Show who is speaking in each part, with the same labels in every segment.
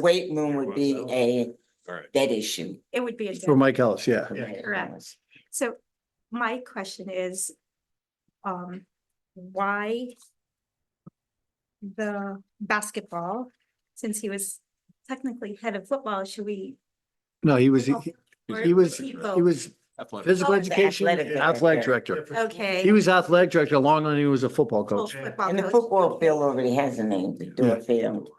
Speaker 1: Great Moon would be a
Speaker 2: All right.
Speaker 1: dead issue.
Speaker 3: It would be a,
Speaker 4: For
Speaker 3: dead-
Speaker 4: Mike Ellis, yeah.
Speaker 2: Yeah.
Speaker 3: Correct. so my question is, um, why the basketball, since he was technically head of football, should we?
Speaker 4: No, he was,
Speaker 3: Oh,
Speaker 4: he
Speaker 3: or
Speaker 4: he was,
Speaker 3: should
Speaker 4: he
Speaker 3: we vote?
Speaker 4: was physical
Speaker 3: Oh, the
Speaker 4: education,
Speaker 1: athletic director.
Speaker 4: athletic director.
Speaker 3: Okay.
Speaker 4: He was athletic director long and he was a football
Speaker 3: full
Speaker 4: coach.
Speaker 3: football
Speaker 1: And the
Speaker 3: coach.
Speaker 1: football field already has a name, the
Speaker 4: Yeah.
Speaker 1: Dora Field.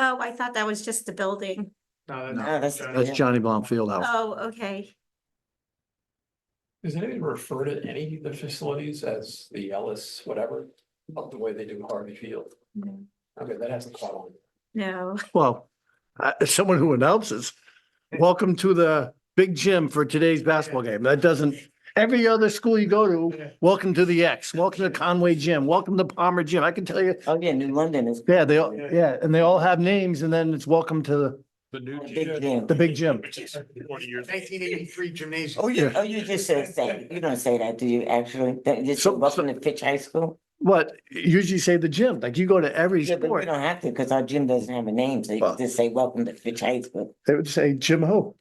Speaker 3: Oh, I thought that was just the building.
Speaker 5: No,
Speaker 4: No,
Speaker 5: that's-
Speaker 1: that's-
Speaker 4: That's Johnny Blom Fieldhouse.
Speaker 3: Oh, okay.
Speaker 5: Does anybody refer to any of the facilities as the Ellis, whatever, of the way they do Harvey Field?
Speaker 3: No.
Speaker 5: Okay, that hasn't caught on.
Speaker 3: No,
Speaker 4: Well, I- as someone who announces, welcome to the big gym for today's basketball game. That doesn't, every other school you go
Speaker 5: Yeah.
Speaker 4: to, welcome to the X, welcome to Conway Gym, welcome to Palmer Gym. I can tell you,
Speaker 1: Oh, yeah, New London is.
Speaker 4: yeah, they, all
Speaker 5: Yeah.
Speaker 4: yeah, and they all have names and then it's welcome to
Speaker 2: The new.
Speaker 1: a big gym.
Speaker 4: the big gym.
Speaker 6: Nineteen eighty-three gymnasium.
Speaker 1: Oh, you, oh, you just said that. You don't say that, do you, actually? That you say
Speaker 4: So-
Speaker 1: welcome to Fitch High School?
Speaker 4: What, usually say the gym, like you go to every
Speaker 1: Yeah, but we
Speaker 4: sport,
Speaker 1: don't have to, because our gym doesn't have a name, so you
Speaker 4: Well-
Speaker 1: can just say welcome to Fitch High School.
Speaker 4: they would say Jim Ho.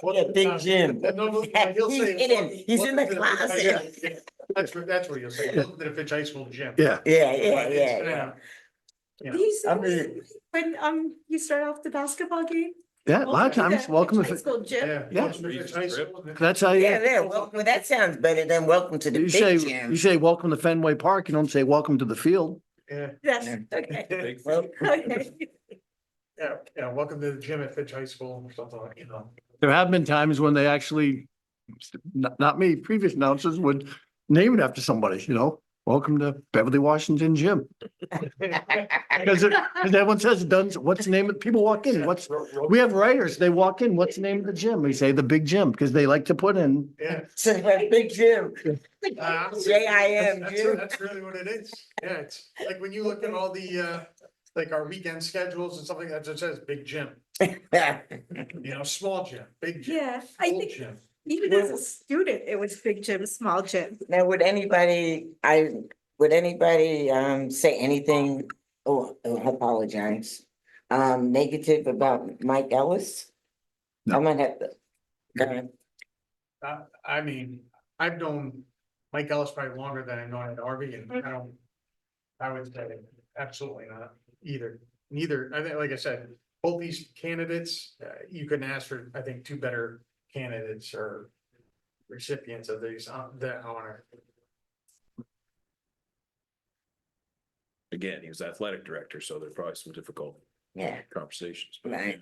Speaker 1: What a big gym.
Speaker 6: No, no, no, he'll
Speaker 1: He's
Speaker 6: say,
Speaker 1: in it. He's in the
Speaker 6: "Welcome to
Speaker 1: closet."
Speaker 6: yeah, yeah. That's where, that's where you'll say, welcome to the Fitch High School gym.
Speaker 4: Yeah.
Speaker 1: Yeah, yeah,
Speaker 6: Right,
Speaker 1: yeah,
Speaker 6: it's,
Speaker 1: yeah.
Speaker 6: uh, Yeah.
Speaker 3: you
Speaker 1: I'm
Speaker 3: said, when, um, you start off the basketball game.
Speaker 4: Yeah, a lot of times, welcome
Speaker 3: High
Speaker 4: to,
Speaker 3: School gym.
Speaker 6: Yeah.
Speaker 4: Yeah.
Speaker 6: welcome to Fitch High School.
Speaker 4: that's how
Speaker 1: Yeah,
Speaker 4: you,
Speaker 1: yeah, well, well, that sounds better than welcome to the
Speaker 4: Oh, you say,
Speaker 1: big
Speaker 4: you
Speaker 1: gym.
Speaker 4: say, welcome to Fenway Park, you don't say, welcome to the field.
Speaker 6: Yeah,
Speaker 3: That's, okay,
Speaker 1: Well,
Speaker 3: okay.
Speaker 6: yeah, yeah, welcome to the gym at Fitch High School or something like, you know.
Speaker 4: There have been times when they actually, not, not me, previous announcers would name it after somebody, you know? Welcome to Beverly Washington Gym. Because it, because everyone says, it doesn't, what's the name of, people walk in, what's,
Speaker 6: Ro- ro-
Speaker 4: we have writers, they walk in, what's the name of the gym? We say the big gym, because they like to put in,
Speaker 6: Yeah.
Speaker 1: So, that big gym.
Speaker 6: Uh,
Speaker 1: J I M,
Speaker 6: That's,
Speaker 1: gym.
Speaker 6: that's really what it is. Yeah, it's like when you look at all the, uh, like our weekend schedules and something that just says big gym, you know, small gym, big gym.
Speaker 3: Yeah, I
Speaker 6: full
Speaker 3: think
Speaker 6: gym.
Speaker 3: even as a student, it was big gym, small gym.
Speaker 1: Now, would anybody, I, would anybody, um, say anything, oh, I apologize, um, negative about Mike Ellis? I
Speaker 4: No.
Speaker 1: might have to. uh,
Speaker 6: Uh, I mean, I've known Mike Ellis probably longer than I've known Ed Harvey and
Speaker 3: Mm-hmm.
Speaker 6: I don't. I would say absolutely not either, neither, I think, like I said, both these candidates, uh, you couldn't ask for, I think, two better candidates or. Recipients of these, uh, the honor.
Speaker 2: Again, he was athletic director, so there's probably some difficult
Speaker 1: Yeah,
Speaker 2: conversations. but-
Speaker 1: Right.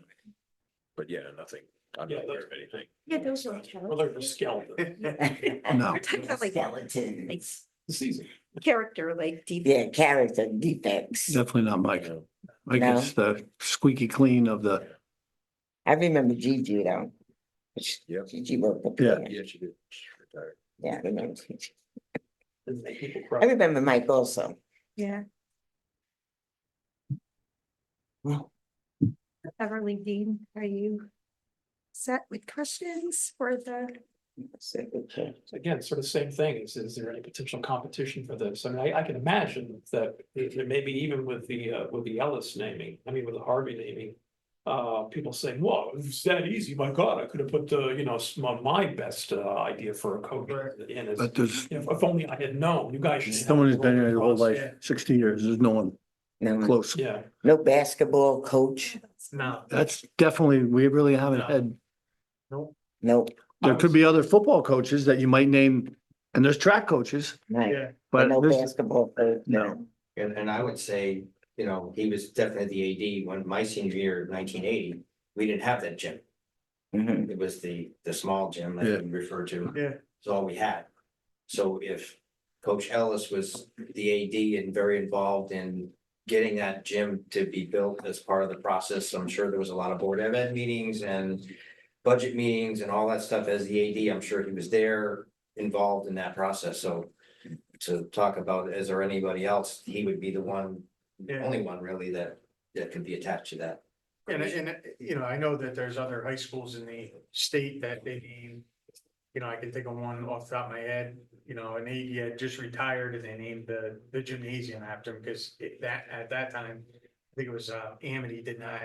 Speaker 2: But yeah, nothing, I'm
Speaker 5: Yeah,
Speaker 2: not aware
Speaker 5: those-
Speaker 2: of anything.
Speaker 3: Yeah, those were.
Speaker 5: Well, they're just skeleton.
Speaker 4: no.
Speaker 3: Like
Speaker 1: skeletons.
Speaker 5: The season.
Speaker 3: character, like deep.
Speaker 1: Yeah, character defects.
Speaker 4: Definitely not Mike.
Speaker 2: You know,
Speaker 4: Mike
Speaker 1: No.
Speaker 4: is the squeaky clean of the,
Speaker 1: I remember Gigi though. Which-
Speaker 2: Yep.
Speaker 1: Gigi worked up
Speaker 4: Yeah.
Speaker 1: there.
Speaker 2: Yeah, she did. She retired.
Speaker 1: Yeah, I remember. Gigi.
Speaker 5: Doesn't make people
Speaker 1: I
Speaker 5: cry.
Speaker 1: remember Mike also.
Speaker 3: Yeah. Beverly Dean, are you set with questions for the?
Speaker 1: So, okay.
Speaker 5: Again, sort of same thing, is, is there any potential competition for this? I mean, I, I can imagine that it it may be even with the, uh, with the Ellis naming, I mean, with the Harvey naming. Uh, people saying, whoa, it's that easy, my God, I could have put, uh, you know, s- my, my best, uh, idea for a coach in as.
Speaker 4: but there's
Speaker 5: If, if only I had known, you guys. should have
Speaker 4: someone who's been
Speaker 5: rolled
Speaker 4: here their whole
Speaker 5: across.
Speaker 4: life,
Speaker 6: yeah.
Speaker 4: sixty years, there's no one
Speaker 1: No,
Speaker 4: close.
Speaker 5: Yeah,
Speaker 1: no basketball coach,
Speaker 6: No.
Speaker 4: That's definitely, we really haven't
Speaker 5: No.
Speaker 4: had,
Speaker 1: no,
Speaker 4: there could be other football coaches that you might name, and there's track coaches,
Speaker 1: right,
Speaker 6: Yeah,
Speaker 4: but
Speaker 1: no
Speaker 4: this,
Speaker 1: basketball coach.
Speaker 4: no.
Speaker 7: And, and I would say, you know, he was definitely the AD when my senior year, nineteen eighty, we didn't have that gym.
Speaker 1: Mhm.
Speaker 7: It was the, the small gym that you referred to.
Speaker 6: Yeah.
Speaker 7: It's all we had. So if Coach Ellis was the AD and very involved in getting that gym to be built as part of the process, I'm sure there was a lot of board of ed meetings and budget meetings and all that stuff as the AD, I'm sure he was there involved in that process, so to talk about, is there anybody else, he would be the one, the
Speaker 6: Yeah.
Speaker 7: only one really that, that could be attached to that.
Speaker 6: and, and, you know, I know that there's other high schools in the state that they named. You know, I can think of one off the top of my head, you know, an AD had just retired and they named the, the gymnasium after him, because that, at that time. think it was, uh, Amity did not